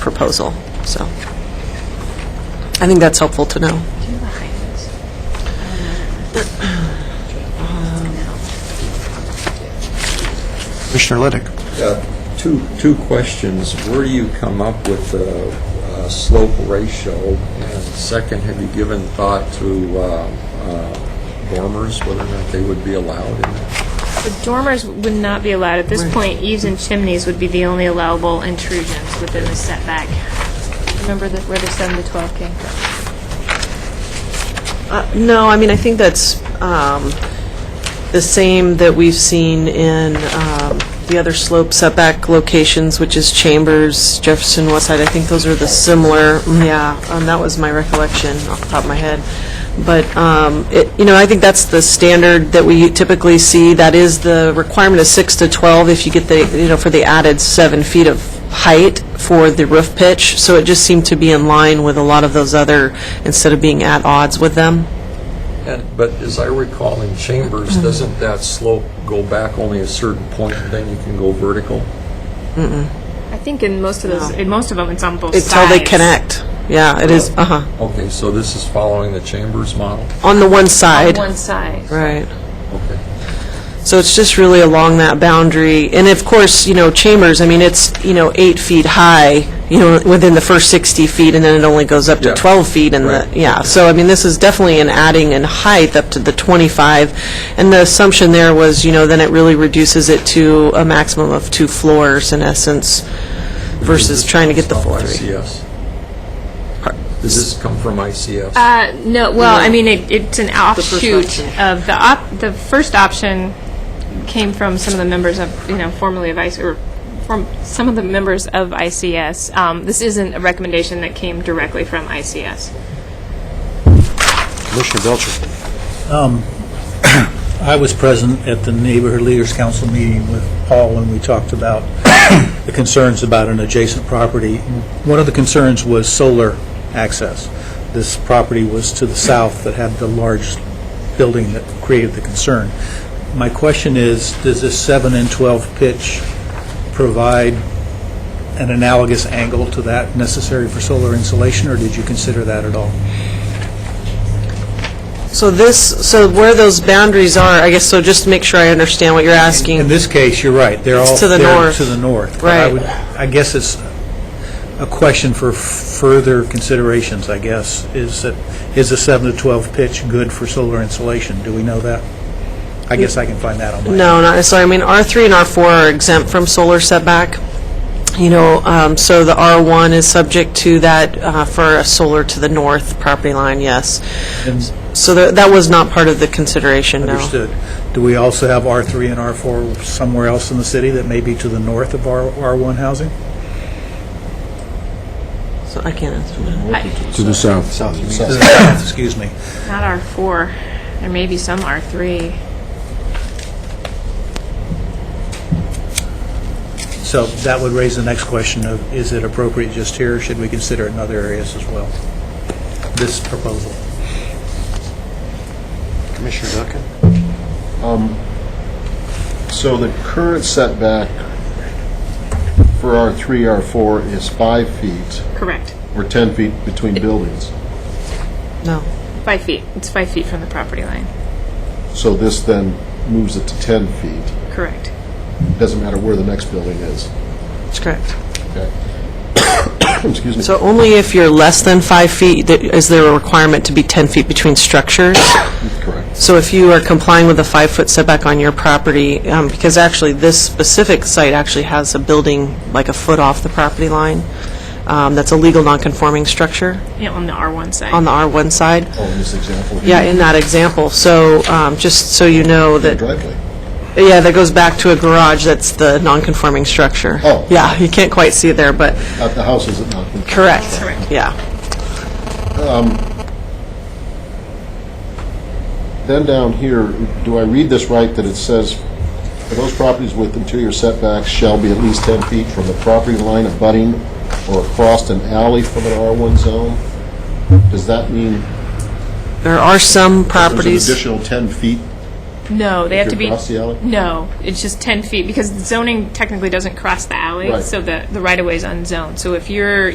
proposal, so. I think that's helpful to know. Commissioner Liddick. Uh, Two, two questions. Where do you come up with the uh, slope ratio? And second, have you given thought to uh, uh, dormers, whether or not they would be allowed in that? The dormers would not be allowed. At this point, eaves and chimneys would be the only allowable intrusions within the setback. Remember the- where the 7 to 12 came from? Uh, No, I mean, I think that's um, the same that we've seen in um, the other slope setback locations, which is Chambers, Jefferson, Westside. I think those are the similar, yeah, um, that was my recollection off the top of my head. But, um, it- you know, I think that's the standard that we typically see. That is the requirement of 6 to 12 if you get the, you know, for the added 7 feet of height for the roof pitch, so it just seemed to be in line with a lot of those other, instead of being at odds with them. And, but as I recall, in Chambers, Mm-hmm. doesn't that slope go back only a certain point, and then you can go vertical? I think in most of those, in most of them, it's on both sides. It's how they connect. Yeah, it is, uh-huh, Okay, so this is following the Chambers model? on the one side. One side. Right. Okay. So it's just really along that boundary, and of course, you know, chambers, I mean, it's, you know, eight feet high, you know, within the first 60 feet, and then it only goes up to Yeah. 12 feet in the, Right. yeah. So, I mean, this is definitely an adding in height up to the 25, and the assumption there was, you know, then it really reduces it to a maximum of two floors, in essence, versus trying to get the full three. ICS. Does this come from ICS? Uh, no, well, I mean, it, it's an offshoot option. of the op, the first option came from some of the members of, you know, formerly of IC, or from some of the members of ICS. Um, this isn't a recommendation that came directly from ICS. Commissioner Belcher. I was present at the Neighborhood Leaders Council meeting with Paul when we talked about the concerns about an adjacent property. One of the concerns was solar access. This property was to the south that had the large building that created the concern. My question is, does this 7 and 12 pitch provide an analogous angle to that necessary for solar insulation, or did you consider that at all? So this, so where those boundaries are, I guess, so just to make sure I understand what you're asking. In this case, you're right, they're It's all... to the they're north. To the north. But I Right. would- I guess it's a question for further considerations, I guess, is that, is a 7 to 12 pitch good for solar insulation? Do we know that? I guess I can find that on my... No, not necessarily. I mean, R3 and R4 are exempt from solar setback, you know, um, so the R1 is subject to that uh, for a solar to the north property line, yes. So tha- that was not part of the consideration, no. Understood. Do we also have R3 and R4 somewhere else in the city that may be to the north of R- R1 housing? So I can't answer that. To the south. To the south, Excuse me. Not R4. There may be some R3. So that would raise the next question of, is it appropriate just here, or should we consider it in other areas as well? This proposal. Commissioner Duncan. So the current setback for R3, R4 is five feet, Correct. or 10 feet between buildings. No. Five feet. It's five feet from the property line. So this then moves it to 10 feet. Correct. Doesn't matter where the next building is. That's correct. Okay. Excuse me. So only if you're less than five feet th- is there a requirement to be 10 feet between structures. Correct. So if you are complying with a five-foot setback on your property, um, because actually, this specific site actually has a building like a foot off the property line, um, that's a legal non-conforming structure Yeah, on the R1 side. on the R1 side. Oh, in this example. Yeah, in that example. So um, just so you know The that, driveway. yeah, that goes back to a garage that's the non-conforming structure. Oh. Yeah, you can't quite see it there, but, At the house, is it not? correct. Correct. Yeah. Then down here, do I read this right, that it says, "For those properties with interior setbacks shall be at least 10 feet from the property line abutting or across an alley from an R1 zone"? Does that mean There are some there's an properties... additional 10 feet? No, they have to you're be. across the alley? No, it's just 10 feet because the zoning technically doesn't cross the alley, Right. so the, the right of way is unzoned. So if you're